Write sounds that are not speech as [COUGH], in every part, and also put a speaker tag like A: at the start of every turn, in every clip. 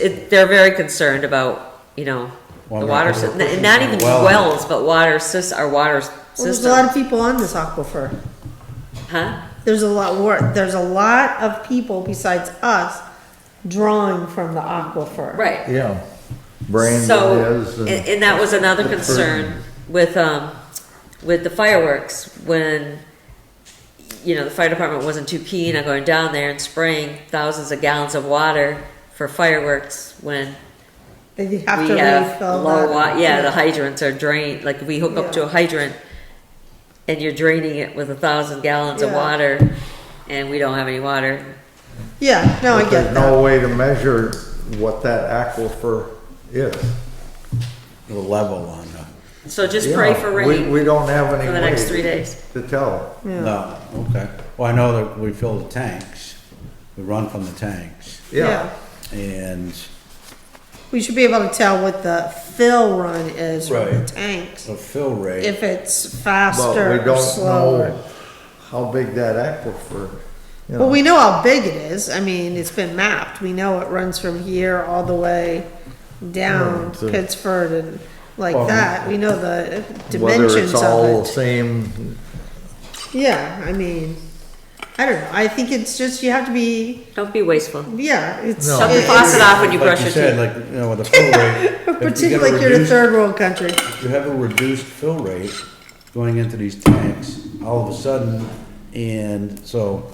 A: It, they're very concerned about, you know, the
B: Water
A: water, sy-
B: purification
A: n- not even
B: well.
A: wells, but water sys, our water s-
C: Well, there's a lot
A: system.
C: of people on this aquifer.
A: Huh?
C: There's a lot more, there's a lot of people besides us drawing from the aquifer.
A: Right.
B: Yeah. Brand
A: So,
B: is.
A: and,
B: and-
A: and that was another concern with, um, with the fireworks, when, you know, the fire department wasn't too keen on going down there and spraying thousands of gallons of water for fireworks when
C: They have
A: we
C: to
A: have
C: refill
A: low wa,
C: that.
A: yeah, the hydrants are drained, like if we hook up to a hydrant and you're draining it with a thousand gallons of
C: Yeah.
A: water and we don't have any water.
C: Yeah, no, I get
B: but There's
C: that.
B: no way to measure what that aquifer is.
D: the level on the,
A: So just pray for rain.
B: Yeah, We, we don't have any
A: for the next
B: way
A: three days.
B: To tell.
D: no, okay. Well, I know that we fill the tanks, we run from the tanks,
B: Yeah.
D: and
C: We should be able to tell what the fill run is from the
D: Right.
C: tanks.
D: the fill rate,
C: If it's
B: But we
C: faster or
B: don't
C: slower.
B: know how big that aquifer, you know.
C: Well, we know how big it is. I mean, it's been mapped. We know it runs from here all the way down
B: Right, so-
C: Pittsford and like
B: Well,
C: that. We know the
B: Whether
C: dimensions
B: it's all the
C: of it.
B: same,
C: Yeah, I mean, I don't know. I think it's just, you have to be,
A: Don't be wasteful.
C: yeah, it's.
B: No.
A: Shut the
C: it-
A: faucet off when you
D: like
A: brush
D: you
A: your
D: said,
A: teeth.
D: like, you know, with the fill
A: [LAUGHS]
D: rate. if you get
C: Particularly like you're in a
D: reduced-
C: third world country.
D: if You have a reduced fill rate going into these tanks, all of a sudden, and so,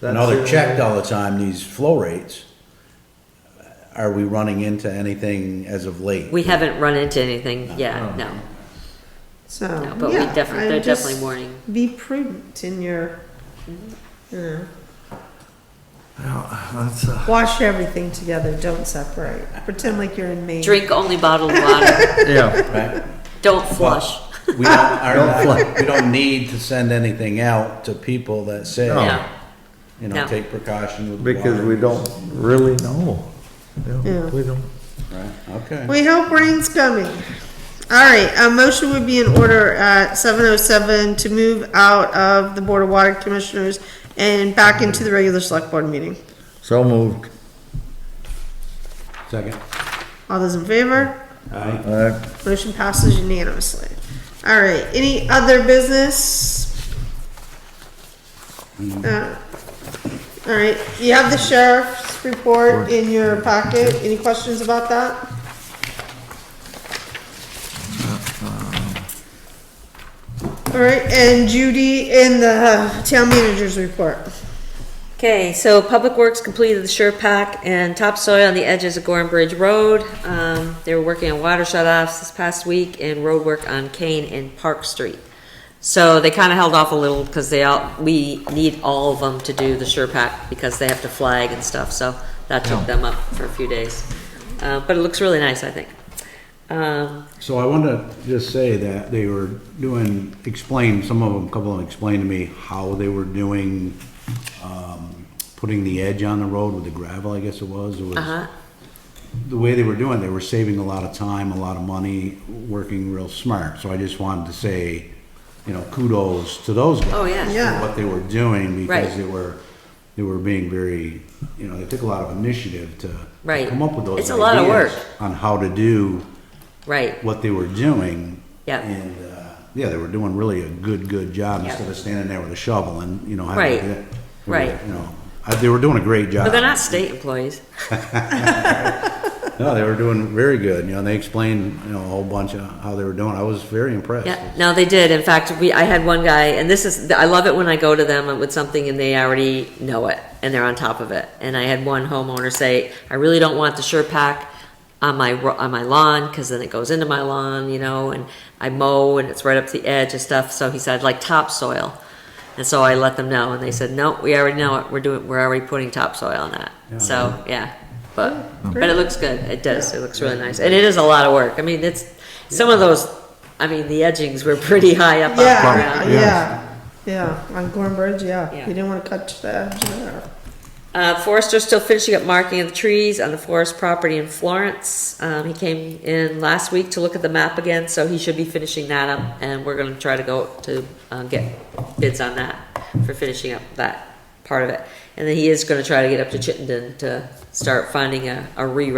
B: That's
D: now
B: the-
D: they're checked all the time, these flow rates. Are we running into anything as of late?
A: We haven't run into anything, yeah, no.
C: So,
A: No, but we
C: yeah,
A: definitely-
C: I'm
A: they're
C: just-
A: definitely warning.
C: Be prudent in your, you know,
B: yeah, that's, uh,
C: wash everything together, don't separate. Pretend like you're in Maine.
A: Drink only bottled water.
B: yeah,
D: Right?
A: Don't flush.
D: We
B: [LAUGHS]
D: don't, are not, we don't need to send anything out to people that say,
B: No.
A: No,
D: you
A: No.
D: know, take precaution with
B: because
D: water.
B: we don't really know. You
C: Yeah.
B: know, We don't.
D: Right, okay.
C: We hope rain's coming. All right, a motion would be in order at seven oh seven to move out of the Board of Water Commissioners and back into the regular select board meeting.
B: So moved.
D: Second.
C: All those in favor?
D: Aye.
B: Uh,
C: Motion passes unanimously. All right, any other business? Uh, All right, you have the sheriff's report in your packet. Any questions about that? Uh, All right, and Judy in the town manager's report.
A: Okay, so Public Works completed the sure pack and topsoil on the edges of Gorham Bridge Road. Um, they were working on water shut-offs this past week and road work on Kane and Park Street. So they kinda held off a little because they all, we need all of them to do the sure pack because they have to flag and stuff, so that took them up for a few days. Uh, but it looks really nice, I think. Um,
D: So I want to just say that they were doing, explain, some of them, a couple of them explained to me how they were doing, um, putting the edge on the road with the gravel, I guess it was. It was
A: uh-huh,
D: the way they were doing, they were saving a lot of time, a lot of money, working real smart. So I just wanted to say, you know, kudos to those guys.
A: Oh, yeah.
C: Yeah.
D: For what they were doing
A: Right.
D: because they were, they were being very, you know, they took a lot of initiative to
A: Right.
D: come up with those
A: It's a lot of
D: ideas
A: work.
D: on how to do
A: right.
D: what they were doing.
A: Yep.
D: And, uh, yeah, they were doing really a good, good job
A: Yep.
D: instead of standing there with a shovel and, you know, having
A: Right.
D: to do it.
A: Right.
D: You know, uh, they were doing a great job.
A: But they're not state employees.
D: No, they were doing very good, you know, and they explained, you know, a whole bunch of how they were doing. I was very impressed.
A: Yeah, no, they did. In fact, we, I had one guy, and this is, I love it when I go to them with something and they already know it and they're on top of it. And I had one homeowner say, I really don't want the sure pack on my, ro- on my lawn because then it goes into my lawn, you know, and I mow and it's right up to the edge and stuff. So he said, "I'd like topsoil. And so I let them know and they said, no, we already know it. We're doing, we're already putting topsoil on that. So, yeah, but, but it looks good. It does. It looks really nice. And it is a lot of work. I mean, it's, some of those, I mean, the edgings were pretty high up. off the
C: Yeah,
A: ground.
C: Uh, yeah, yeah, on Gorham Bridge, yeah.
A: Yeah.
C: You didn't wanna cut the edge there.
A: Uh, Forester's still finishing up marking of the trees on the forest property in Florence. Um, he came in last week to look at the map again, so he should be finishing that up, and we're gonna try to go to, uh, get bids on that for finishing up that part of it. And then he is gonna try to get up to Chittenden to start finding a, a reroute